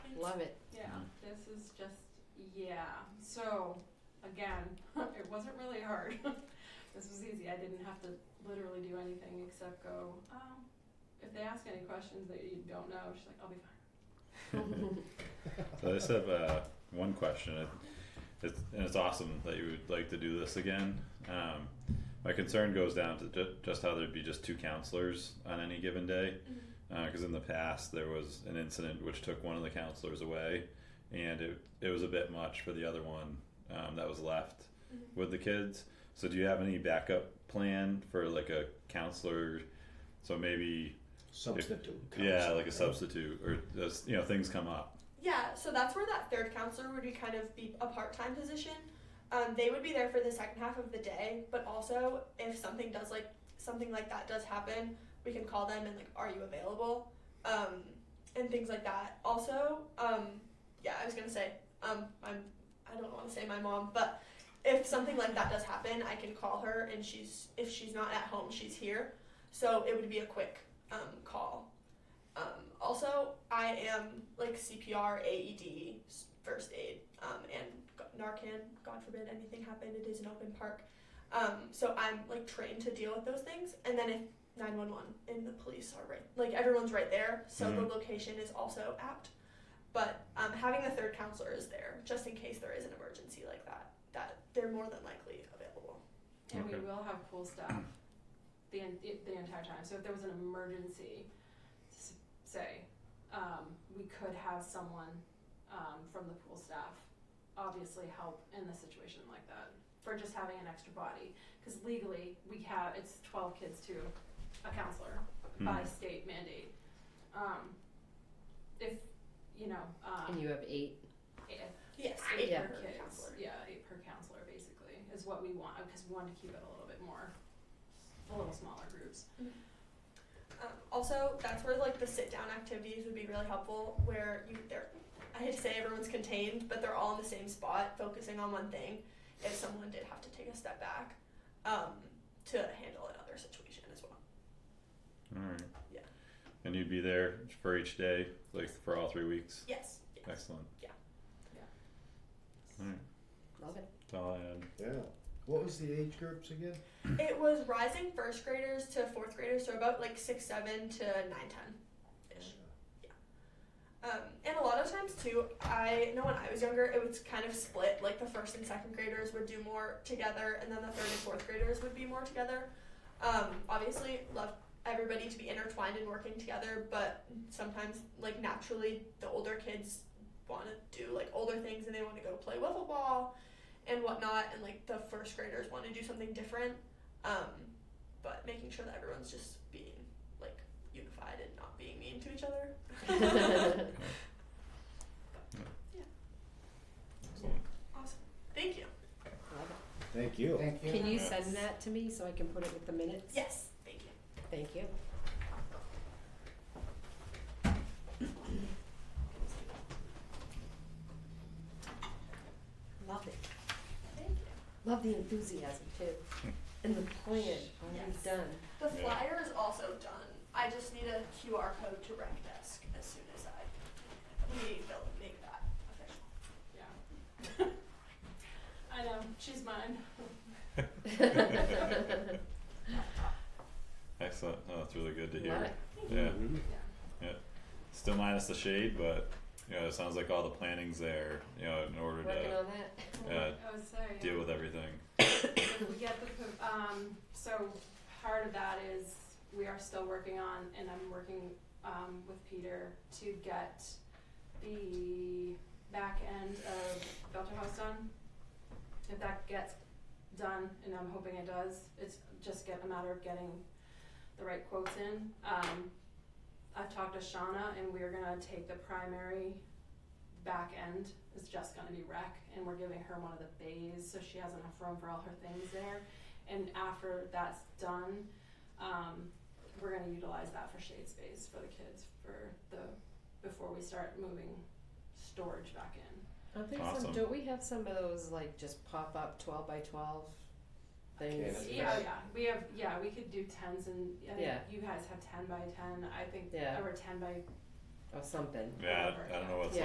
Love it. Yeah, this is just, yeah. So, again, it wasn't really hard. this was easy. I didn't have to literally do anything except go, um, if they ask any questions that you don't know, she's like, I'll be fine. So I just have uh, one question. It, it's, and it's awesome that you would like to do this again. Um, my concern goes down to ju- just how there'd be just two counselors on any given day. Because in the past, there was an incident which took one of the counselors away, and it, it was a bit much for the other one um, that was left with the kids. So, do you have any backup plan for like a counselor? So, maybe, Substitute. yeah, counselor, like a right? substitute, or just, you know, things come up. Yeah, so that's where that third counselor would be kind of be a part-time position. Um, they would be there for the second half of the day, but also if something does like something like that does happen, we can call them and like, are you available? Um, and things like that. Also, um, yeah, I was gonna say, um, I'm, I don't want to say my mom, but if something like that does happen, I can call her and she's if she's not at home, she's here. So it would be a quick um, call. Um, also, I am like CPR, AED, E s- first aid, um, and g- Narcan. God forbid anything happened. It is an open park, um, so I'm like trained to deal with those things. And then if 911 and the police are right, like everyone's right there, so the Mhm. location is also apt. But um, having a third counselor is there just in case there is an emergency like that. That they're more than likely available. And Okay. we will have pool staff the, en- the the entire time. So if there was an emergency, s- say, um, we could have someone um, from the pool staff obviously help in a situation like that for just having an extra body. Because legally, we have it's 12 kids to a counselor Hmm. by state mandate. Um, if you know, um, And you have eight. if Yes, eight Yeah. per kids. Yeah, eight per counselor basically is what we want because we want to keep it a little bit more, a little smaller groups. Um, also, that's where like the sit down activities would be really helpful, where you they're I hate to say everyone's contained, but they're all in the same spot, focusing on one thing. If someone did have to take a step back, um, to handle another situation as well. All right. Yeah. And you'd be there for each day, like for all three weeks. Yes. yes. Excellent. Love it. That's all I had. Yeah. What was the age groups again? It was rising first graders to fourth graders, so about like six seven to nine ten. Ish. Um, and a lot of times too, I know when I was younger, it was kind of split. Like the first and second graders would do more together, and then the third and fourth graders would be more together. Um, obviously, love everybody to be intertwined and working together, but sometimes, like naturally, the older kids want to do like older things, and they want to go play wiffle ball and whatnot, and like the first graders want to do something different. Um, but making sure that everyone's just being like unified and not being mean to each other. Excellent. Awesome. Thank you. Thank you. Thank you. Can you send that to me so I can put it with the minutes? Yes. Thank you. Thank you. Love it. Thank you. Love the enthusiasm too. And the plan already Yes. done. The Yeah. flyer is also done. I just need a QR code to rec desk as soon as I we will make that Yeah. official. I know she's mine. Excellent. Oh, that's really good to Love hear. it. Yeah. Mhm. Yeah. Still minus the shade, but you know, it sounds like all the planning's there, you know, in order Working to on that. Yeah. I was sorry. deal with everything. If we get the po- um, so part of that is we are still working on, and I'm working um, with Peter to get the back end of Belter House done. If that gets done, and I'm hoping it does, it's just get a matter of getting the right quotes in. Um, I've talked to Shauna, and we're gonna take the primary back end is just gonna be rec, and we're giving her one of the bays, so she has enough room for all her things there. And after that's done, um, we're gonna utilize that for shade space for the kids for the, before we start moving storage back in. I think Awesome. some, don't we have some of those like just pop up twelve by twelve things? Canopy. Yeah, yeah, we have, yeah, we could do tens and, I think Yeah. you guys have ten by ten, I think, Yeah. or ten by Or something. Yeah, I, I don't know what's